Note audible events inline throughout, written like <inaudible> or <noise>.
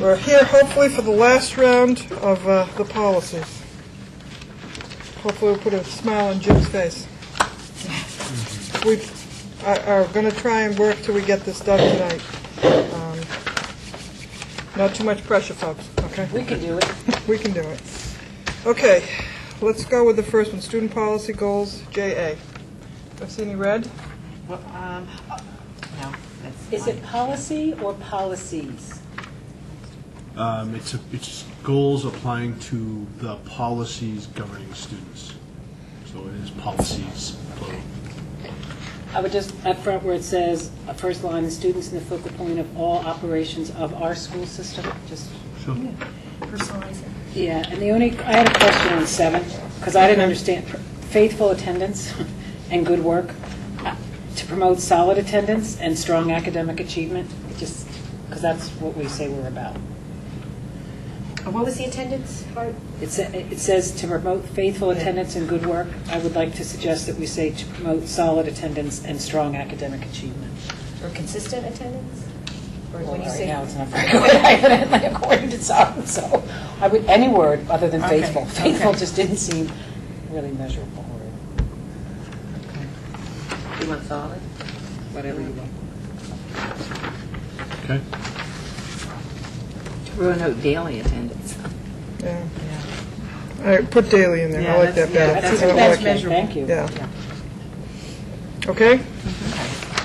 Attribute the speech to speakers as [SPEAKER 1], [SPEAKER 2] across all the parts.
[SPEAKER 1] We're here hopefully for the last round of uh, the policies. Hopefully we'll put a smile on Jim's face. We are- are going to try and work till we get this done tonight. Um, Not too much pressure, folks, okay?
[SPEAKER 2] We could do it.
[SPEAKER 1] We can do it. Okay, let's go with the first one, student policy goals, JA. Do I see any red?
[SPEAKER 3] Well, um, oh, No, that's.
[SPEAKER 2] Is
[SPEAKER 3] mine.
[SPEAKER 2] it policy or policies?
[SPEAKER 4] Um, It's, a- it's goals applying to the policies governing students. So it is policies, plural.
[SPEAKER 2] I would just, up front where it says, uh, first line, the students in the focal point of all operations of our school system, just,
[SPEAKER 4] Sure.
[SPEAKER 2] yeah, and the only, I had a question on seven, because I didn't understand, faithful attendance <laughs> and good work, uh, to promote solid attendance and strong academic achievement, just, because that's what we say we're about.
[SPEAKER 3] And What was the attendance part?
[SPEAKER 2] It sa- it says to promote faithful attendance and good work. I would like to suggest that we say to promote solid attendance and strong academic achievement.
[SPEAKER 3] Or consistent attendance? Or
[SPEAKER 2] Well,
[SPEAKER 3] when you
[SPEAKER 2] right
[SPEAKER 3] say,
[SPEAKER 2] now, it's not very <laughs> good, evidently, according to some, so I would, any word other than
[SPEAKER 3] Okay,
[SPEAKER 2] faithful. Faithful
[SPEAKER 3] okay.
[SPEAKER 2] just didn't seem really measurable or
[SPEAKER 3] you want solid?
[SPEAKER 2] whatever you want.
[SPEAKER 4] Okay?
[SPEAKER 5] Roanoke daily attendance.
[SPEAKER 1] Yeah. All right, put daily in there, I like that better.
[SPEAKER 3] that's-
[SPEAKER 1] I don't
[SPEAKER 3] that's
[SPEAKER 1] like-
[SPEAKER 3] measurable.
[SPEAKER 2] Thank you.
[SPEAKER 1] Yeah. Okay?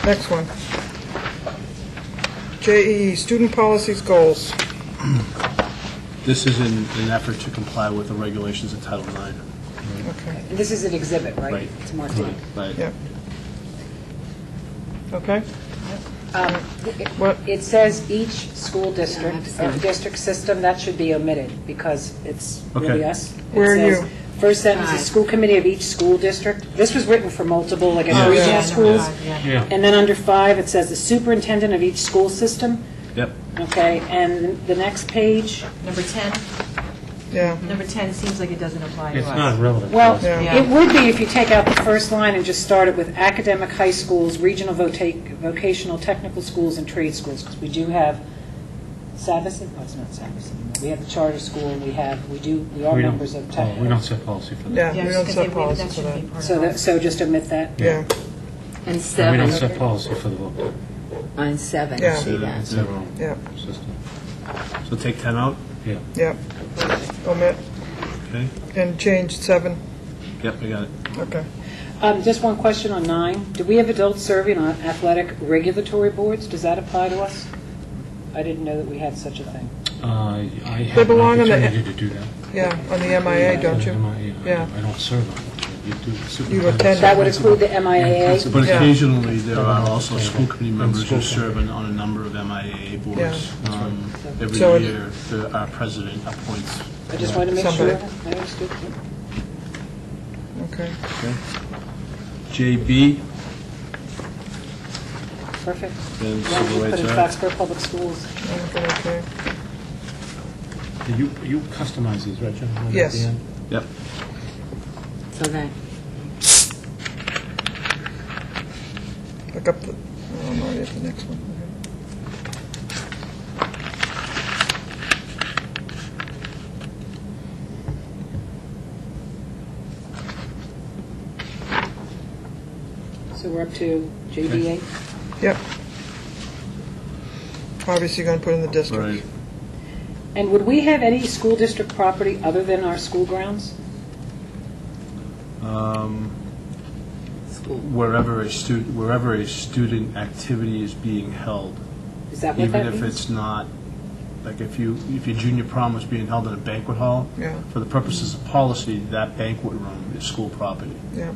[SPEAKER 1] Next one. JE, student policies, goals.
[SPEAKER 4] This is in an effort to comply with the regulations of Title IX.
[SPEAKER 1] Okay,
[SPEAKER 2] This is an exhibit, right?
[SPEAKER 4] Right.
[SPEAKER 2] It's marked down.
[SPEAKER 4] But
[SPEAKER 1] yeah. Okay?
[SPEAKER 2] Um, it-
[SPEAKER 1] What?
[SPEAKER 2] It says each school district,
[SPEAKER 5] I've seen
[SPEAKER 2] or
[SPEAKER 5] it.
[SPEAKER 2] district system, that should be omitted, because it's really
[SPEAKER 4] Okay.
[SPEAKER 2] us. It
[SPEAKER 1] Where are
[SPEAKER 2] says,
[SPEAKER 1] you?
[SPEAKER 2] First sentence, the
[SPEAKER 3] Five.
[SPEAKER 2] school committee of each school district. This was written for multiple, like,
[SPEAKER 4] Yeah.
[SPEAKER 2] regional schools.
[SPEAKER 4] Yeah.
[SPEAKER 2] And then under five, it says the superintendent of each school system,
[SPEAKER 4] Yep.
[SPEAKER 2] okay? And the next page,
[SPEAKER 3] Number 10,
[SPEAKER 1] Yeah,
[SPEAKER 3] number 10 seems like it doesn't apply to us.
[SPEAKER 6] It's not relevant.
[SPEAKER 2] well,
[SPEAKER 1] Yeah.
[SPEAKER 2] it would be if you take out the first line and just start it with academic high schools, regional vota- vocational technical schools, and trade schools, because we do have Savison, oh, it's not Savison, we have the charter school, we have, we do, we are
[SPEAKER 6] We don't-
[SPEAKER 2] members of
[SPEAKER 6] oh, We don't
[SPEAKER 2] tech.
[SPEAKER 6] set policy for that.
[SPEAKER 1] yeah, we don't set policy for that.
[SPEAKER 2] So that, so just omit that.
[SPEAKER 1] Yeah,
[SPEAKER 5] And
[SPEAKER 6] And we
[SPEAKER 5] seven,
[SPEAKER 6] don't set policy for the vote.
[SPEAKER 5] on seven,
[SPEAKER 1] Yeah.
[SPEAKER 5] see that?
[SPEAKER 4] It's their own
[SPEAKER 1] yeah,
[SPEAKER 6] system.
[SPEAKER 4] So take 10 out,
[SPEAKER 6] Yeah.
[SPEAKER 1] yeah. Omit
[SPEAKER 4] okay?
[SPEAKER 1] and change seven,
[SPEAKER 4] Yep, I got it.
[SPEAKER 1] okay.
[SPEAKER 2] Um, Just one question on nine. Do we have adults serving on athletic regulatory boards? Does that apply to us? I didn't know that we had such a thing.
[SPEAKER 6] Uh, I
[SPEAKER 1] They
[SPEAKER 6] have an
[SPEAKER 1] belong in the-
[SPEAKER 6] opportunity to do that.
[SPEAKER 1] Yeah, on the MIA, don't
[SPEAKER 6] Am
[SPEAKER 1] you?
[SPEAKER 6] I-
[SPEAKER 1] Yeah.
[SPEAKER 6] I don't serve on it. You do
[SPEAKER 1] You
[SPEAKER 6] superintendent.
[SPEAKER 1] attend.
[SPEAKER 2] That would include the MIAA?
[SPEAKER 4] But
[SPEAKER 1] Yeah.
[SPEAKER 4] occasionally, there are also
[SPEAKER 6] Yeah.
[SPEAKER 4] school committee
[SPEAKER 6] And
[SPEAKER 4] members who
[SPEAKER 6] school
[SPEAKER 4] serve on on a number of MIAA boards. Um, Every
[SPEAKER 1] So it-
[SPEAKER 4] year, the- our president appoints.
[SPEAKER 2] I just wanted to make sure.
[SPEAKER 1] Somebody.
[SPEAKER 2] I understood.
[SPEAKER 1] Okay,
[SPEAKER 4] JB,
[SPEAKER 2] Perfect.
[SPEAKER 4] then
[SPEAKER 2] Yeah,
[SPEAKER 4] civil
[SPEAKER 2] we Put
[SPEAKER 4] rights
[SPEAKER 2] in
[SPEAKER 4] act.
[SPEAKER 2] Foxborough Public Schools.
[SPEAKER 1] okay, okay.
[SPEAKER 6] You, you customize these, right, Jim? At the
[SPEAKER 1] Yes.
[SPEAKER 6] end?
[SPEAKER 4] Yep.
[SPEAKER 5] So that,
[SPEAKER 1] Look up the, oh, no, you have the next one. Okay.
[SPEAKER 2] So we're up to JDA.
[SPEAKER 1] Yep. Obviously, you're going to put in the district.
[SPEAKER 4] Right.
[SPEAKER 2] And would we have any school district property other than our school grounds?
[SPEAKER 4] Um, Wherever a student, wherever a student activity is being held,
[SPEAKER 2] Is that what
[SPEAKER 4] even
[SPEAKER 2] that
[SPEAKER 4] if
[SPEAKER 2] means?
[SPEAKER 4] it's not, like if you, if your junior prom was being held in a banquet hall,
[SPEAKER 1] Yeah.
[SPEAKER 4] for the purposes of policy, that banquet room is school property,
[SPEAKER 1] Yeah,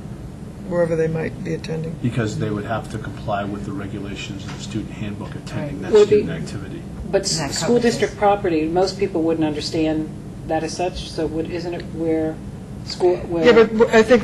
[SPEAKER 1] wherever they might be attending.
[SPEAKER 4] because they would have to comply with the regulations of the student handbook attending that
[SPEAKER 2] Would it be-
[SPEAKER 4] student activity.
[SPEAKER 2] But
[SPEAKER 3] That
[SPEAKER 2] s- school
[SPEAKER 3] covers this.
[SPEAKER 2] district property, most people wouldn't understand that as such, so would, isn't it where school, where?
[SPEAKER 1] Yeah, but I think